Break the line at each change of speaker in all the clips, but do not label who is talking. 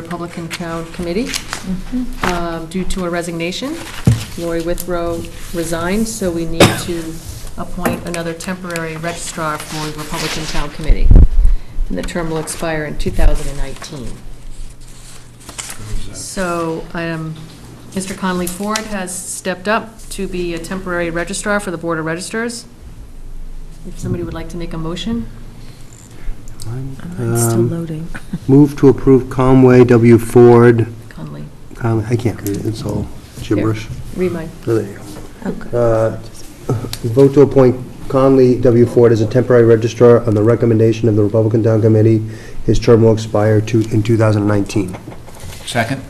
Republican Town Committee um, due to a resignation. Lori Withrow resigned, so we need to appoint another temporary registrar for the Republican Town Committee. And the term will expire in 2019. So, um, Mr. Conley Ford has stepped up to be a temporary registrar for the Board of Registers. If somebody would like to make a motion?
It's still
Um,
loading.
Move to approve Conway W. Ford,
Conley,
Con- I can't read it, it's all gibberish.
read mine.
Oh, there you
Oh, good.
go. Uh, Vote to appoint Conley W. Ford as a temporary registrar on the recommendation of the Republican Town Committee. His term will expire to- in 2019.
Second?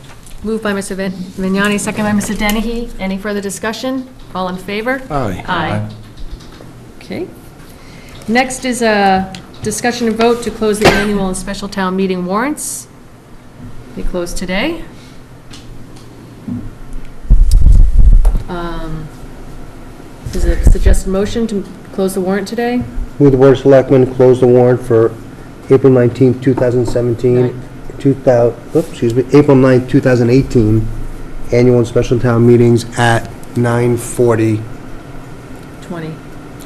Moved by Mr. Vin- Vignani, second by Mr. Dennehy. Any further discussion? All in favor?
Aye.
Aye. Okay. Next is a discussion and vote to close the annual and special town meeting warrants. They close today. Um, Is it a suggested motion to close the warrant today?
Move the Board of Selectmen close the warrant for April 19th, 2017, 2000, oops, excuse me, April 9th, 2018, annual and special town meetings at 9:40,
20.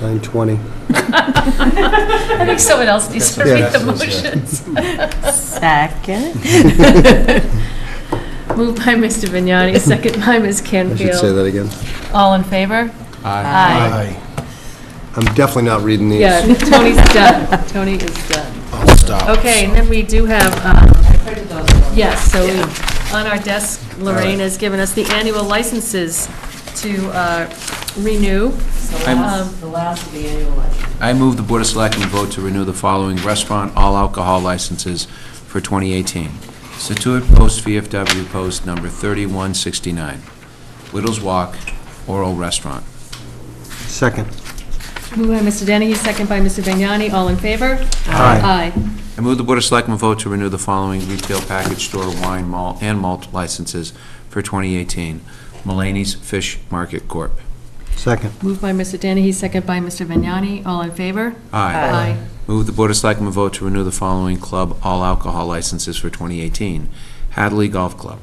9:20.
I think someone else needs to
Yeah.
read the
Yeah.
motions.
Second.
Moved by Mr. Vignani, second by Ms.
I
Canfield.
should say that again.
All in favor? Aye.
I'm definitely not reading these.
Yeah, Tony's done. Tony is done.
I'll stop.
Okay, and then we do have, um, yes, so we- on our desk, Lorraine has given us the annual licenses to uh, renew.
I'm-
Um,
The last of the annual election.
I move the Board of Selectmen vote to renew the following restaurant all alcohol licenses for 2018. Situate Post VFW Post Number 3169, Whittles Walk, Oral Restaurant.
Second.
Moved by Mr. Dennehy, second by Mr. Vignani, all in favor?
Aye.
Aye.
I move the Board of Selectmen vote to renew the following retail package store wine, malt, and malt licenses for 2018. Mulaney's Fish Market Corp.
Second.
Moved by Mr. Dennehy, second by Mr. Vignani, all in favor? Aye.
Move the Board of Selectmen vote to renew the following club all alcohol licenses for 2018. Hadley Golf Club.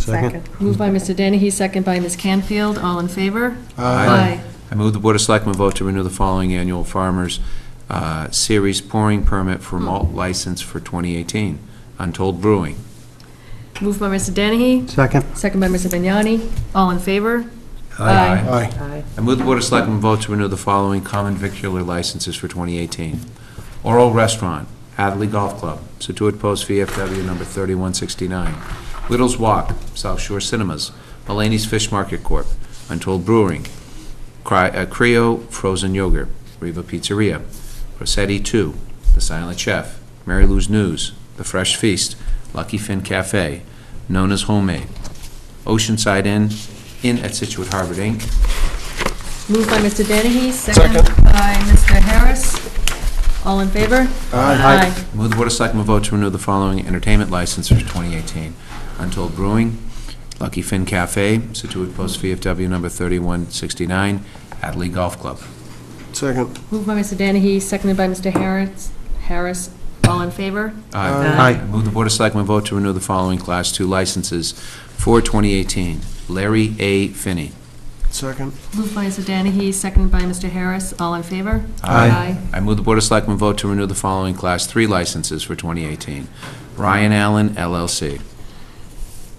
Second.
Moved by Mr. Dennehy, second by Ms. Canfield, all in favor?
Aye. I move the Board of Selectmen vote to renew the following annual Farmers uh, Series pouring permit for malt license for 2018. Untold Brewing.
Moved by Mr. Dennehy,
Second.
second by Mr. Vignani, all in favor?
Aye.
I move the Board of Selectmen vote to renew the following common vicular licenses for 2018. Oral Restaurant, Hadley Golf Club, Situate Post VFW number 3169, Whittles Walk, South Shore Cinemas, Mulaney's Fish Market Corp., Untold Brewing, Cry- uh, Creo Frozen Yogurt, Riva Pizzeria, Rossetti 2, The Silent Chef, Mary Lou's News, The Fresh Feast, Lucky Finn Cafe, Nona's Homemade, Oceanside Inn, Inn at Situate Harbor Inc.,
Moved by Mr. Dennehy, second by Mr. Harris. All in favor?
Aye.
Move the Board of Selectmen vote to renew the following entertainment license for 2018. Untold Brewing, Lucky Finn Cafe, Situate Post VFW number 3169, Hadley Golf Club.
Second.
Moved by Mr. Dennehy, seconded by Mr. Harris. Harris, all in favor?
Aye.
Move the Board of Selectmen vote to renew the following Class 2 licenses for 2018. Larry A. Finney.
Second.
Moved by Mr. Dennehy, seconded by Mr. Harris. All in favor?
Aye.
I move the Board of Selectmen vote to renew the following Class 3 licenses for 2018. Ryan Allen LLC.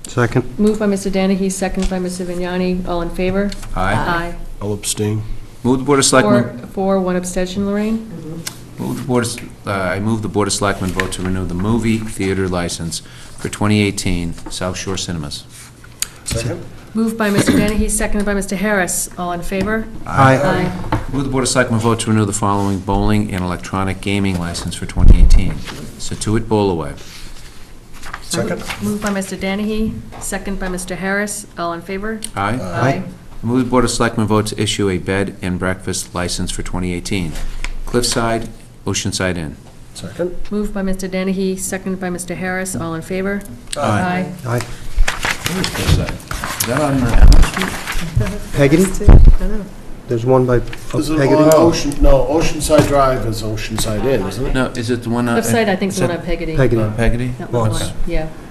Second.
Moved by Mr. Dennehy, seconded by Mr. Vignani. All in favor?
I'll abstain.
Move the Board of Selectmen...
Four, four, one abstention, Lorraine.
Move the Board, of- uh, I move the Board of Selectmen vote to renew the movie theater license for 2018 South Shore Cinemas.
Second?
Moved by Mr. Dennehy, seconded by Mr. Harris. All in favor?
Aye.
Move the Board of Selectmen vote to renew the following bowling and electronic gaming license for 2018. Situate Bowlaway.
Second?
Moved by Mr. Dennehy, seconded by Mr. Harris. All in favor?
Aye. Move the Board of Selectmen vote to issue a bed and breakfast license for 2018. Cliffside, Oceanside Inn.
Second?
Moved by Mr. Dennehy, seconded by Mr. Harris, all in favor? Aye.
Aye.
Is that on the...
Peggotty? There's one by oh,
Is it
Peggotty?
on Ocean, no, Oceanside Drive is Oceanside Inn, isn't it?
No, is it the one on...
Cliffside, I think, is the one on Uh, Peggotty.
Peggotty.
Peggotty?
That was the one,
Yes.
Yeah,